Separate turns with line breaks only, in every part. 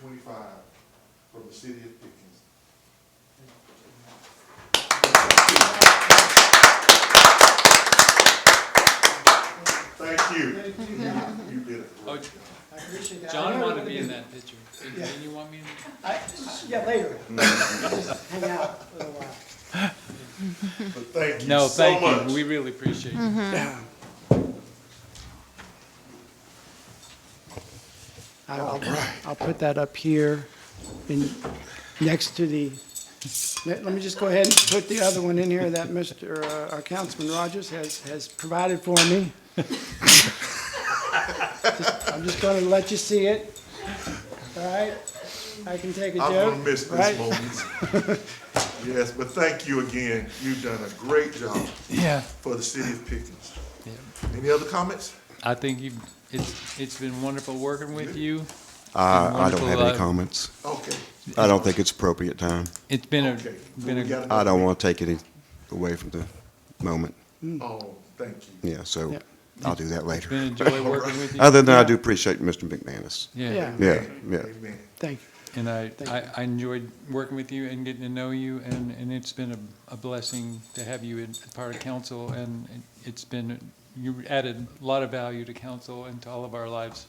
twenty-five from the city of Pickens. Thank you.
Thank you.
You you did a great
Oh,
job.
I appreciate that.
John wanted to be in that picture. Didn't you want me in?
I- Yeah, later. Hang out for a while.
But thank you
No,
so
thank
much.
you. We really appreciate it.
I'll, I'll put that up here and next to the, let let me just go ahead and put the other one in here that Mr., uh, our Councilman Rogers has, has provided for me. Just- I'm just gonna let you see it, all right? I can take a joke,
I'm
right?
gonna miss this moment. Yes, but thank you again. You've done a great job
Yeah.
for the city of Pickens. Any other comments?
I think you, it's, it's been wonderful working with you.
I, I don't
Wonderful,
have any
uh,
comments.
Okay.
I don't think it's appropriate time.
It's been
Okay.
a, been
We
a,
got
I
another-
don't want to take any away from the moment.
Oh, thank you.
Yeah, so
Yeah.
I'll do that later.
been a joy working with you.
Other than I do appreciate Mr. McManus.
Yeah.
Yeah.
Yeah, yeah.
Amen.
Thank you.
And I,
Thank
I, I enjoyed working with you and getting to know you and, and it's been a, a blessing to have you in part of council and it's been, you added a lot of value to council and to all of our lives.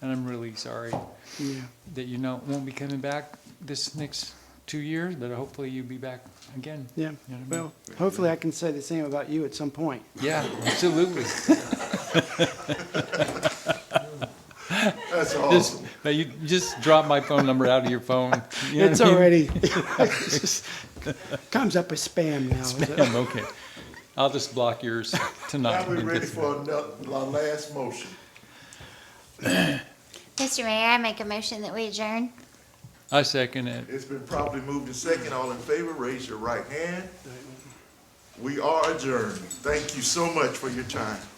And I'm really sorry
Yeah,
that you know, won't be coming back this next two years, but hopefully you'll be back again. You
yeah.
know what I mean?
Well, hopefully I can say the same about you at some point.
Yeah, absolutely.
That's
Just,
awesome.
but you just drop my phone number out of your phone. You know
It's
what I mean?
already, it's just- comes up as spam now. is it?
Damn, okay. I'll just block yours tonight.
Now we're ready for another, our last motion.
Mr. Mayor, I make a motion that we adjourn.
I second it.
It's been properly moved and second. All in favor, raise your right hand. We are adjourned. Thank you so much for your time.